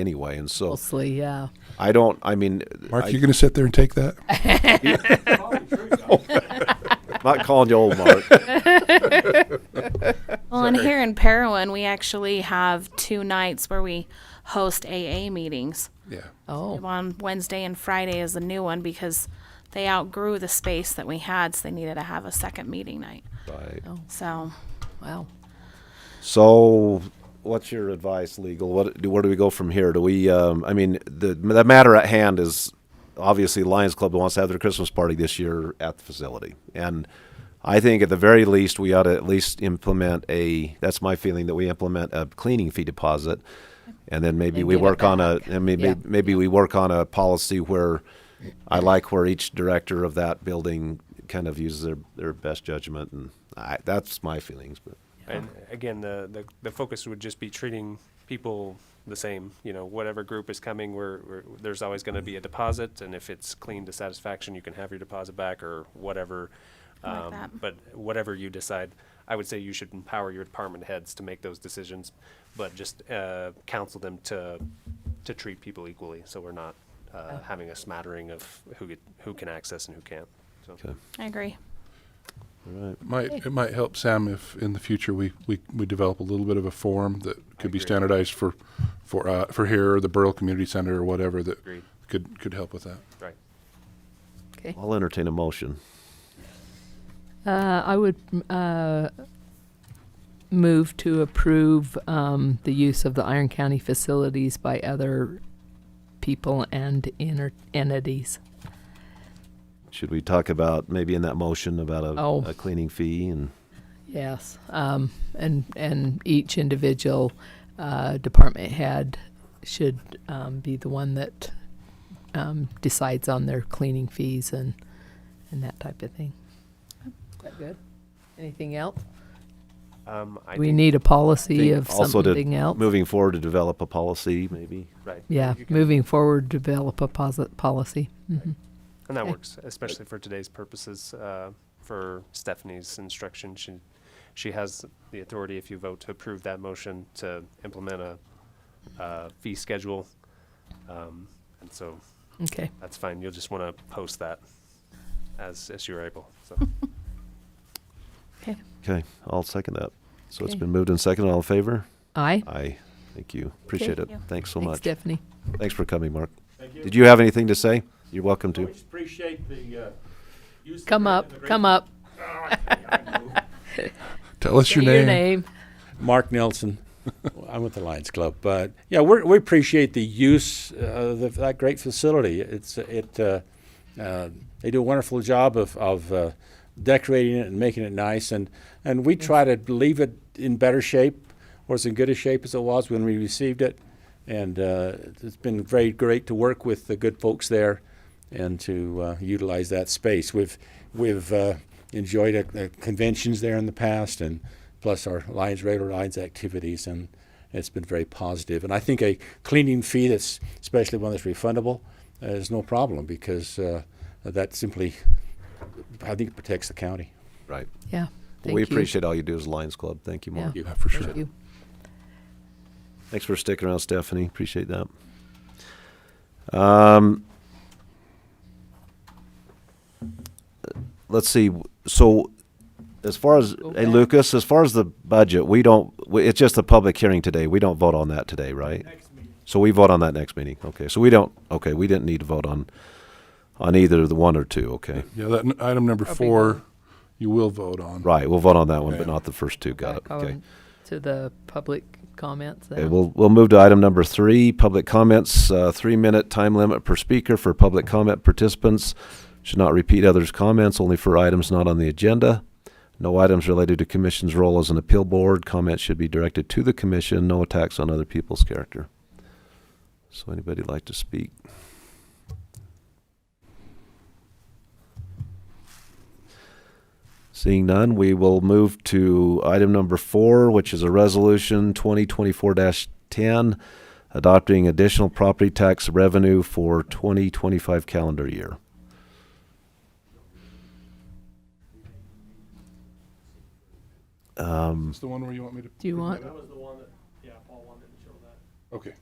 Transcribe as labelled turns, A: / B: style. A: anyway. And so
B: mostly, yeah.
A: I don't, I mean,
C: Mark,
A: I-
C: you going to sit there and take that?
A: I'm not calling you old, Mark.
D: Well, and here in Parowan, we actually have two nights where we host AA meetings.
C: yeah.
B: Oh,
D: On Wednesday and Friday is the new one because they outgrew the space that we had, so they needed to have a second meeting night.
A: Right.
D: So
B: wow.
A: So, what's your advice, legal? What do, where do we go from here? Do we? Um, I mean, the the matter at hand is obviously Lions Club wants to have their Christmas party this year at the facility, and I think at the very least we ought to at least implement a. That's my feeling that we implement a cleaning fee deposit, and then maybe
B: And
A: we
B: give it
A: work on a.
B: back.
A: And maybe
B: Yeah.
A: maybe we work on a policy where. I like where each director of that building kind of uses their, their best judgment, and I, that's my feelings. But
E: And again, the, the, the focus would just be treating people the same, you know, whatever group is coming, we're, we're, there's always gonna be a deposit, and if it's clean to satisfaction, you can have your deposit back or whatever.
D: I like
E: Um,
D: that.
E: But whatever you decide, I would say you should empower your department heads to make those decisions, but just, uh, counsel them to, to treat people equally, so we're not, uh, having a smattering of who get, who can access and who can't, so.
A: Okay.
D: I agree.
C: Might it might help Sam if in the future we, we, we develop a little bit of a form that could be
E: agree.
C: standardized for for uh, for here or the Borough Community Center or whatever that
E: Agreed.
C: could could help with that.
E: Right.
B: Okay.
A: I'll entertain a motion.
B: Uh, I would uh, move to approve um, the use of the Iron County facilities by other people and inter- entities.
A: Should we talk about maybe in that motion about a,
B: Oh.
A: a cleaning fee and
B: Yes, um, and and each individual uh, department head should um, be the one that um, decides on their cleaning fees and and that type of thing. Is that good? Anything else?
E: Um, I
B: we
E: think-
B: need a policy
A: think
B: of
A: also to
B: something else.
A: moving forward to develop a policy maybe?
E: Right.
B: yeah,
E: You can-
B: moving forward, develop a posit- policy. Mhm.
E: And that
B: Okay.
E: works, especially for today's purposes, uh, for Stephanie's instruction. She, she has the authority, if you vote to approve that motion, to implement a, uh, fee schedule. Um, and so
B: Okay.
E: that's fine. You'll just want to post that as, as you're able, so.
A: Okay, I'll second that. So it's
B: Okay.
A: been moved and seconded. All in favor?
B: Aye.
A: Aye. Thank you. Appreciate it.
D: Thank you.
A: Thanks so
B: Thanks,
A: much.
B: Stephanie.
A: Thanks for coming, Mark.
F: Thank you.
A: Did you have anything to say? You're welcome
F: I
A: to.
F: just appreciate the, uh, use. of
B: Come
F: the-
B: up.
F: the great-
B: Come up.
C: Tell us your
B: Say
C: name.
B: Your name.
F: Mark Nelson. I'm with the Lions Club, but yeah, we're, we appreciate the use uh, of that great facility. It's it uh, uh, they do a wonderful job of of uh, decorating it and making it nice, and and we try to leave it in better shape or as in good a shape as it was when we received it, and uh, it's been very great to work with the good folks there and to uh, utilize that space. We've we've uh, enjoyed uh, the conventions there in the past, and plus our Lions regular Lions activities, and it's been very positive. And I think a cleaning fee that's especially one that's refundable uh, is no problem because uh, that simply I think it protects the county.
A: Right.
B: Yeah. Thank
A: We
B: you.
A: appreciate all you do as Lions Club. Thank you, Mark.
B: Yeah.
C: Yeah, for sure.
B: Thank you.
A: Thanks for sticking around, Stephanie. Appreciate that. Um, let's see. So, as far as
B: Go
A: hey
B: back.
A: Lucas, as far as the budget, we don't. We, it's just a public hearing today. We don't vote on that today, right? So we vote on that next meeting. Okay. So we don't. Okay. We didn't need to vote on on either the one or two. Okay.
C: Yeah, that n- item number
B: That'd be
C: four, you will vote on.
A: Right. We'll vote on that one, but
C: Okay.
A: not the first two. Got it.
B: Back
A: Okay.
B: on To the public comments.
A: Okay,
B: now.
A: we'll, we'll move to item number three, public comments, uh, three-minute time limit per speaker for public comment participants. Should not repeat others' comments, only for items not on the agenda. No items related to commission's role as an appeal board. Comments should be directed to the commission, no attacks on other people's character. So anybody like to speak? Seeing none, we will move to item number four, which is a resolution twenty twenty-four ten, adopting additional property tax revenue for twenty twenty-five calendar year. Um,
C: It's the one where you want me to.
B: Do you
C: bring
B: want-
C: that up?
F: was the one that, yeah, Paul wanted to show that.
C: Okay.